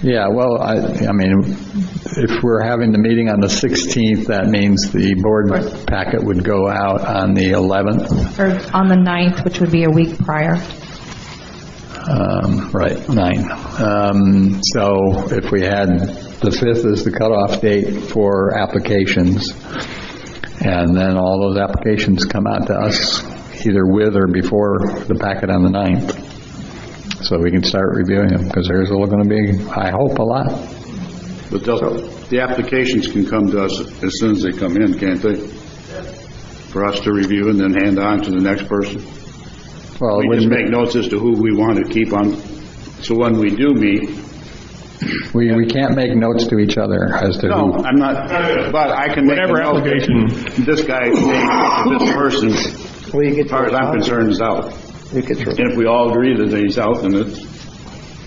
Yeah, well, I, I mean, if we're having the meeting on the 16th, that means the board packet would go out on the 11th, or on the 9th, which would be a week prior. um, right, 9. Um, So if we had, the 5th is the cutoff date for applications, and then all those applications come out to us either with or before the packet on the 9th, so we can start reviewing them, because there's going to be, I hope, a lot. But they'll- the applications can come to us as soon as they come in, can't they? For us to review and then hand on to the next person? Well, We it just wouldn't- make notes as to who we want to keep on, so when we do meet, We, we can't make notes to each other as to no, who. I'm not, but I can make a Whatever note. application- This guy, this person, as Well, you get far as I'm your, concerned, is out. you get your, And if we all agree that he's out, then it's,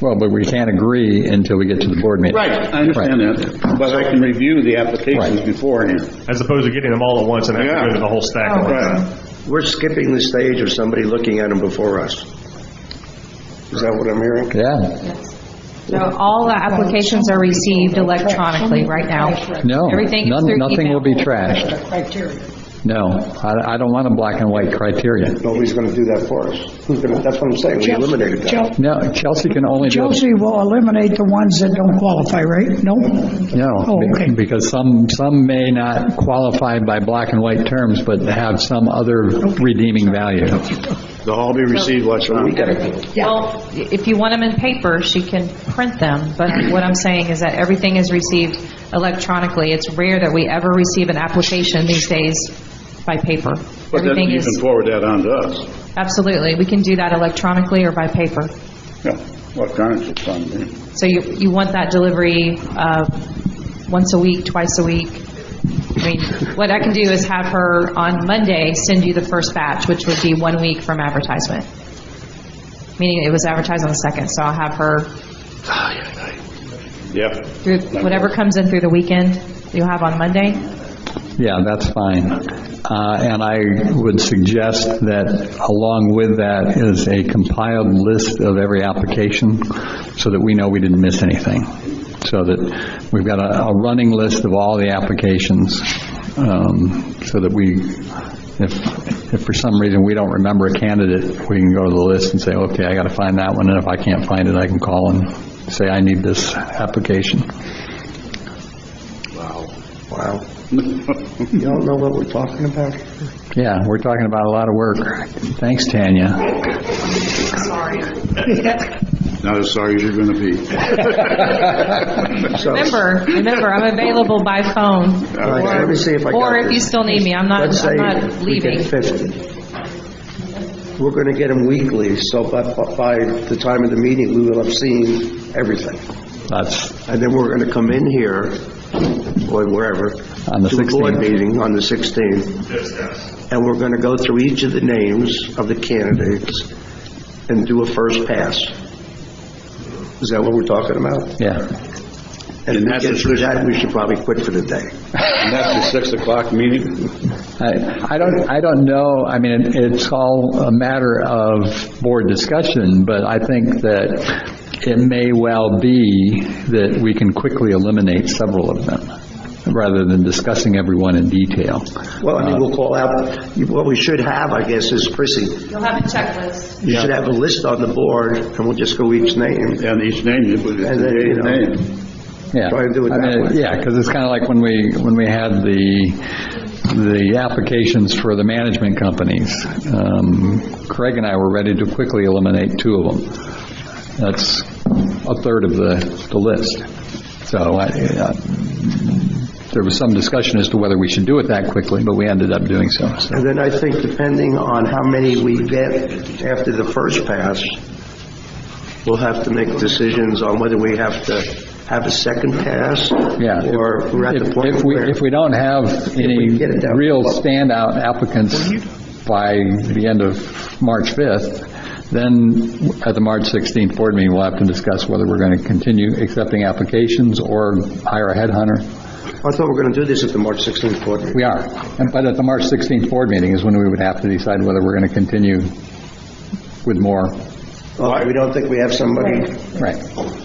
Well, but we can't agree until we get to the board meeting. right, I understand that, but I can review the applications Right. beforehand. as opposed to getting them all at once and having to go to the whole stack at once. we're skipping the stage of somebody looking at them before us. Is that what I'm hearing? Yeah, So all the applications are received electronically right now. no. Everything is none- through Nothing email. will be trashed. No, I, I don't want a black and white criteria. Nobody's going to do that for us. Who's going to, that's what I'm saying, we eliminated that. Chel- No, Chelsea can only do, Chelsea will eliminate the ones that don't qualify, right? No? no, Oh, okay. because some, some may not qualify by black and white terms, but have some other redeeming value. They'll all be received We electronically. got to, Well, if you want them in paper, she can print them, but what I'm saying is that everything is received electronically. It's rare that we ever receive an application these days by paper. But then Everything you can is, forward that on to us. absolutely, we can do that electronically or by paper. Yeah, electronics is fun, man. So you, you want that delivery uh, once a week, twice a week? I mean, what I can do is have her on Monday send you the first batch, which would be one week from advertisement. Meaning it was advertised on the second, so I'll have her, Yeah. through whatever comes in through the weekend, you'll have on Monday? Yeah, that's fine. Uh, And I would suggest that along with that is a compiled list of every application so that we know we didn't miss anything. So that we've got a a running list of all the applications um, so that we, if, if for some reason we don't remember a candidate, we can go to the list and say, okay, I got to find that one. And if I can't find it, I can call and say, I need this application. wow. You don't know what we're talking about? Yeah, we're talking about a lot of work. Thanks, Tanya. Not as sorry as you're going to be. So- Remember, remember, I'm available by phone. All right, let me see if I got Or if this. you still need me, I'm not, Let's I'm say not we leaving. get 50. We're going to get them weekly, so by, by the time of the meeting, we will have seen everything. That's, And then we're going to come in here, or wherever. On the To a board 16th. meeting on the 16th. And we're going to go through each of the names of the candidates and do a first pass. Is that what we're talking about? yeah. And if we that's get a- through that, we should probably quit for the day. And that's the 6 o'clock meeting? I I don't, I don't know, I mean, it- it's all a matter of board discussion, but I think that it may well be that we can quickly eliminate several of them, rather than discussing everyone in detail. Well, I mean, we'll call out, what we should have, I guess, is Chrissy, You'll have a checklist. you should have a list on the board, and we'll just go each name. And each name, it was And then, you today's know- name. Yeah. Try and do it I mean, that way. Yeah, because it's kind of like when we, when we had the, the applications for the management companies. Um, Craig and I were ready to quickly eliminate two of them. That's a third of the, the list. So I, uh, there was some discussion as to whether we should do it that quickly, but we ended up doing so. so. And then I think depending on how many we get after the first pass, we'll have to make decisions on whether we have to have a second pass. Yeah. if- Or we're at the if- point If we, where. if we don't have any get it down. real standout applicants by the end of March 5th, then at the March 16th board meeting, we'll have to discuss whether we're going to continue accepting applications or hire a headhunter. I thought we were going to do this at the March 16th board meeting. We are. And- But at the March 16th board meeting is when we would have to decide whether we're going to continue with more. Oh, We don't think we have somebody Right.